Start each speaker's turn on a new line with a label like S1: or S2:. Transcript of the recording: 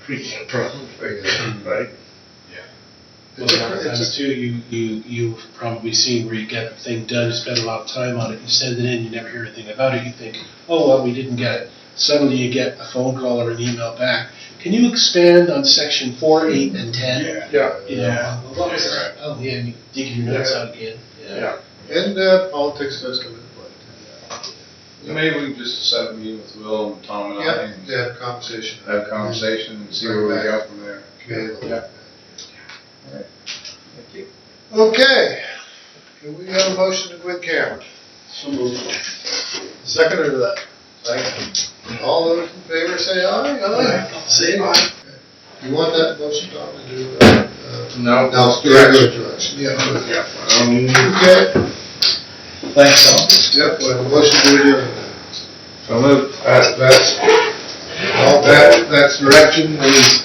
S1: preaching from, right?
S2: Well, a lot of times too, you, you, you've probably seen where you get the thing done, you spend a lot of time on it, you send it in, you never hear anything about it, you think, oh, well, we didn't get it. Suddenly you get a phone call or an email back. Can you expand on section four, eight, and ten?
S3: Yeah,
S2: You know, well, what was that? Oh, yeah, you digging your notes out again.
S3: yeah, and uh, politics does come into play.
S4: Maybe we just set a meeting with Will and Tom and I
S3: Yeah,
S4: and
S3: to have conversation,
S4: have a conversation and see where we go from there.
S3: community.
S4: Yeah.
S3: Okay, can we have a motion to quit camera? Second or that? Second. All those in favor say aye, aye.
S2: Say it.
S3: You want that motion, Tom, to do, uh, uh,
S4: No.
S3: now, spiritual direction, yeah.
S4: Yeah. Um,
S3: Okay,
S2: Thanks, Tom.
S3: yep, we have a motion to adjourn.
S4: So move, uh, that's, all that, that's direction, we